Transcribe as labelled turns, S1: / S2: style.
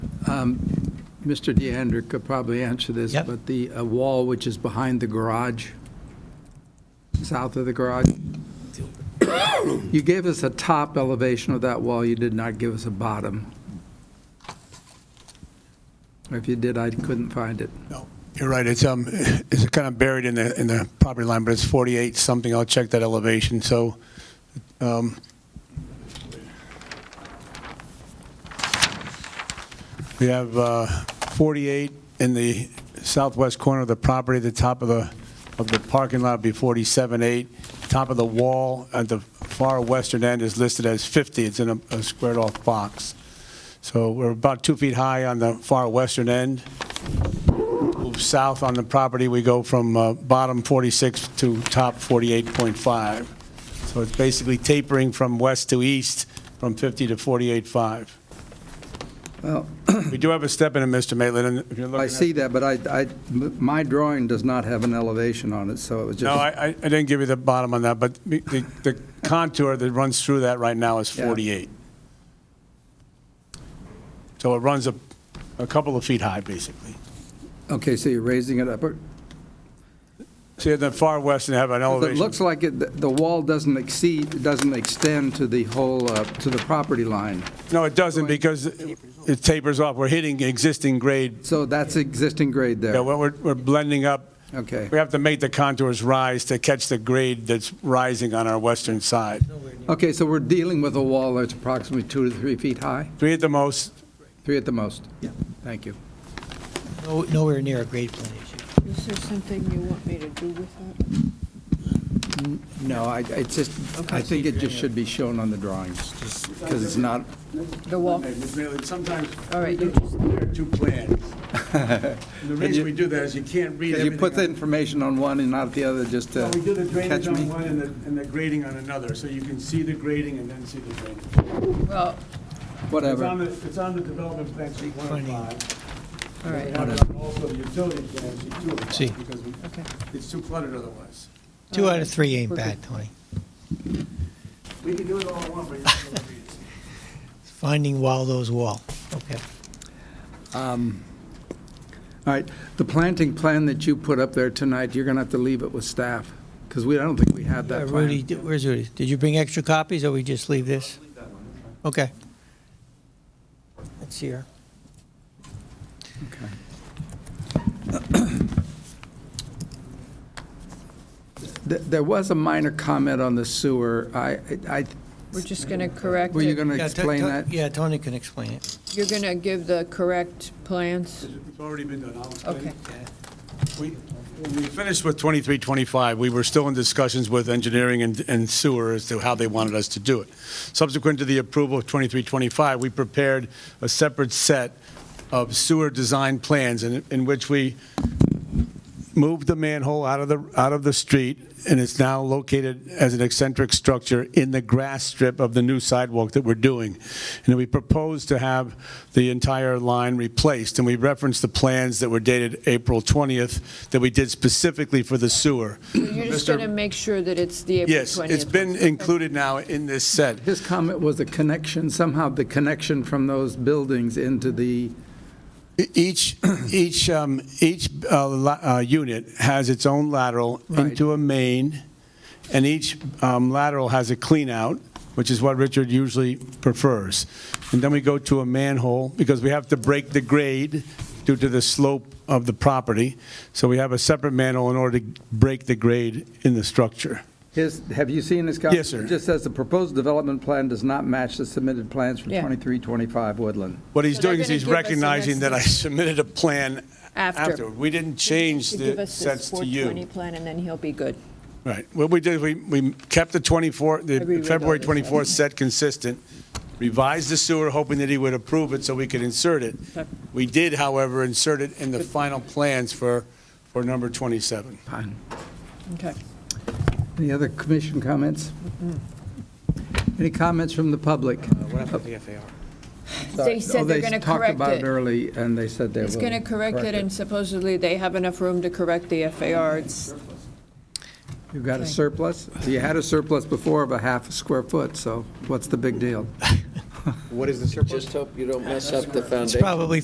S1: Um, Mr. DeAndrea could probably answer this,
S2: Yep.
S1: but the uh, wall which is behind the garage, south of the garage, you gave us a top elevation of that wall, you did not give us a bottom. Or If you did, I couldn't find it.
S3: No, you're right. It's, um, it's kind of buried in the, in the property line, but it's 48 something. I'll check that elevation, so, um, we have, uh, 48 in the southwest corner of the property, the top of the, of the parking lot would be 47.8. Top of the wall at the far western end is listed as 50. It's in a, a squared off box. So we're about two feet high on the far western end move south on the property, we go from uh, bottom 46 to top 48.5. So it's basically tapering from west to east, from 50 to 48.5.
S1: Well,
S3: We do have a step in it, Mr. Maitland, and if you're looking at...
S1: I see that, but I, I, my drawing does not have an elevation on it, so it was
S3: No,
S1: just.
S3: I I- I didn't give you the bottom on that, but the- the the contour that runs through that right now is
S1: Yeah.
S3: 48. So it runs a a couple of feet high, basically.
S1: Okay, so you're raising it up. or-
S3: See, at the far west, they have an
S1: It
S3: elevation...
S1: looks like it, the- the wall doesn't exceed, doesn't extend to the whole, uh, to the property line.
S3: No, it doesn't, because it tapers off. We're hitting existing grade
S1: So that's existing grade
S3: Yeah,
S1: there.
S3: well, we're, we're blending up.
S1: Okay.
S3: We have to make the contours rise to catch the grade that's rising on our western side.
S1: Okay, so we're dealing with a wall that's approximately two to three feet high,
S3: Three at the most,
S1: three at the most? Yeah. Thank you.
S2: No- Nowhere near a grade plan issue.
S4: Is there something you want me to do with that?
S1: No, I, it's just, I think it just should be shown on the drawings, just because it's not,
S4: The wall?
S3: Sometimes
S4: All right,
S3: we
S4: you-
S3: compare two plans. And The reason we do that is you can't read
S1: you put the
S3: everything.
S1: information on one and not the other, just
S3: on-
S1: to
S3: No, We do the
S1: catch
S3: drainage on
S1: me.
S3: one and the, and the grading on another, so you can see the grading and then see the drainage.
S4: Well,
S3: It's on
S1: Whatever.
S3: the, it's on the development plan, sheet one and five.
S4: all right,
S3: And it's on also the utility plan, sheet two and
S2: See.
S3: five, because we-
S4: okay.
S3: it's too cluttered otherwise.
S2: Two out of three ain't
S4: We're good.
S2: bad, Tony.
S3: We can do it all at once, but you're not gonna read it.
S2: Finding Waldo's wall. Uh, Okay.
S1: Um, All right, the planting plan that you put up there tonight, you're going to have to leave it with staff, because we, I don't think we have
S2: Uh,
S1: that plan.
S2: Rudy, di- where's Rudy? Did you bring extra copies, or we just leave this? Okay. It's here.
S1: Th- There was a minor comment on the sewer. I, I,
S4: We're just going to correct
S1: were you
S4: it.
S1: going to
S2: Yeah, To-
S1: explain
S2: To-
S1: that?
S2: Yeah, Tony can explain it.
S4: You're going to give the correct plans?
S3: It's already been done, I'll explain.
S4: Okay.
S3: We when we finished with 2325, we were still in discussions with engineering and- and sewer as to how they wanted us to do it. Subsequent to the approval of 2325, we prepared a separate set of sewer design plans in in which we moved the manhole out of the, out of the street, and it's now located as an eccentric structure in the grass strip of the new sidewalk that we're doing. And we propose to have the entire line replaced, and we referenced the plans that were dated April 20th that we did specifically for the sewer.
S4: You're just going to make sure that it's the April 20th?
S3: Yes, it's been included now in this set.
S1: His comment was the connection, somehow the connection from those buildings into the,
S3: Each, each, um, each uh, la- uh, unit has its own lateral
S1: Right.
S3: into a main, and each um, lateral has a clean-out, which is what Richard usually prefers. And then we go to a manhole, because we have to break the grade due to the slope of the property. So we have a separate manhole in order to break the grade in the structure.
S1: his, have you seen his comment?
S3: Yes, sir.
S1: It just says the proposed development plan does not match the submitted plans for
S4: Yeah.
S1: 2325 Woodland.
S3: What he's
S4: So they're
S3: doing is
S4: gonna
S3: he's
S4: give us an
S3: recognizing that I submitted a plan
S4: After.
S3: after. We didn't change
S4: Give
S3: the
S4: us
S3: sets
S4: this
S3: to you.
S4: 420 plan, and then he'll be good.
S3: Right. What we did, we, we kept the 24, the
S4: reread all
S3: February
S4: this.
S3: 24th set consistent, revised the sewer, hoping that he would approve it so we could insert it. We did, however, insert it in the final plans for, for number 27.
S1: Fine.
S4: Okay.
S1: Any other commission comments? Any comments from the public?
S4: They said they're going to
S1: Oh, they talked
S4: correct
S1: about it
S4: it.
S1: early, and they said they will.
S4: He's going to correct it, and supposedly they have enough room to correct the FAR. It's-
S1: You've got a
S4: Okay.
S1: surplus? You had a surplus before of a half a square foot, so what's the big deal?
S5: Just hope you don't mess up the
S2: It's
S5: foundation.
S2: probably